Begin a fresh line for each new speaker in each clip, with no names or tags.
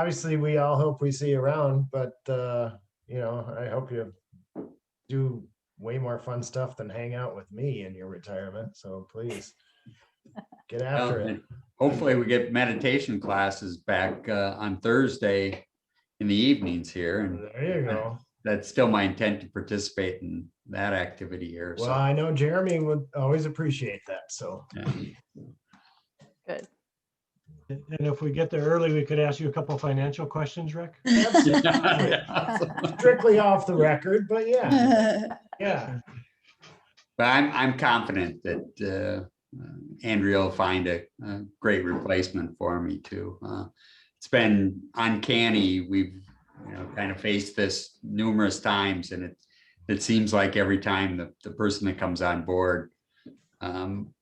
obviously, we all hope we see you around, but, uh, you know, I hope you do way more fun stuff than hang out with me in your retirement. So please get after it.
Well, Hopefully we get meditation classes back uh, on Thursday in the evenings here. And
There you go.
that's still my intent to participate in that activity here.
Well,
So
I know Jeremy would always appreciate that. So
Good.
And if we get there early, we could ask you a couple financial questions, Rick.
But
strictly off the record, but yeah, yeah.
I'm, I'm confident that uh, uh, Andrea will find a, a great replacement for me too. Uh, It's been uncanny. We've, you know, kind of faced this numerous times and it, it seems like every time the, the person that comes on board um,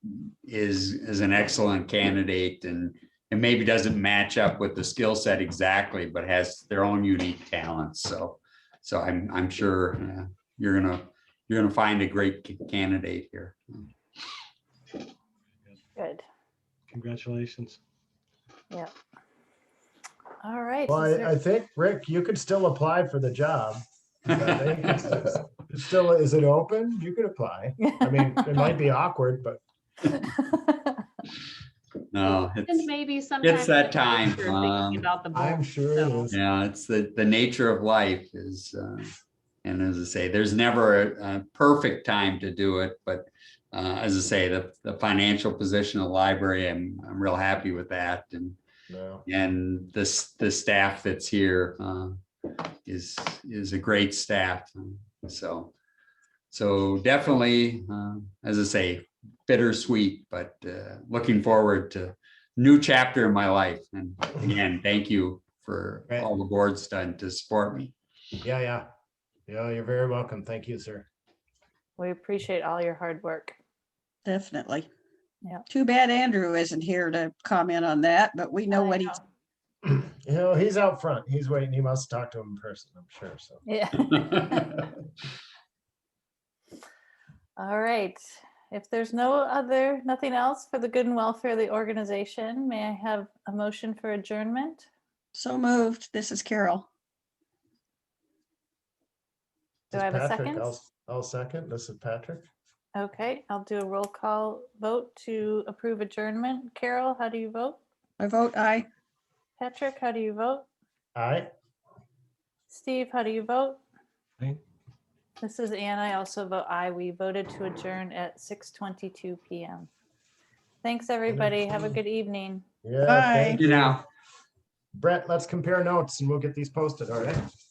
is, is an excellent candidate and, and maybe doesn't match up with the skill set exactly, but has their own unique talents. So, so I'm, I'm sure uh, you're gonna, you're gonna find a great ca- candidate here.
Good.
Congratulations.
All right.
Well,
is there-
I, I think, Rick, you could still apply for the job. I think it's- it's Still, is it open? You could apply. I mean, it might be awkward, but
No,
And
it's,
maybe sometime. in
that
the
time,
future, thinking
um,
About the.
I'm
book,
sure it
so.
is.
yeah, it's the, the nature of life is, uh, and as I say, there's never a, a perfect time to do it, but uh, as I say, the, the financial position of the library, I'm, I'm real happy with that and,
No.
and this, the staff that's here uh, is, is a great staff. So, so definitely, uh, as I say, bittersweet, but uh, looking forward to new chapter in my life. And again, thank you for
Right.
all the board's done to support me.
Yeah, yeah. Yeah, you're very welcome. Thank you, sir.
We appreciate all your hard work.
Definitely.
Yeah.
Too bad Andrew isn't here to comment on that, but we know
I
what he's,
You know, he's out front. He's waiting. He must talk to him in person, I'm sure. So
Yeah. All right. If there's no other, nothing else for the good and welfare of the organization, may I have a motion for adjournment?
so moved. This is Carol.
This
Do
is
I have a
Patrick.
second?
I'll- I'll second. This is Patrick.
Okay, I'll do a roll call vote to approve adjournment. Carol, how do you vote?
I vote aye.
Patrick, how do you vote?
All right.
Steve, how do you vote?
Aye.
This is Ann. I also vote aye. We voted to adjourn at 6:22 PM. Thanks, everybody. Have a good evening.
Yeah.
Bye.
thank-
You know.
Brett, let's compare notes and we'll get these posted, all right?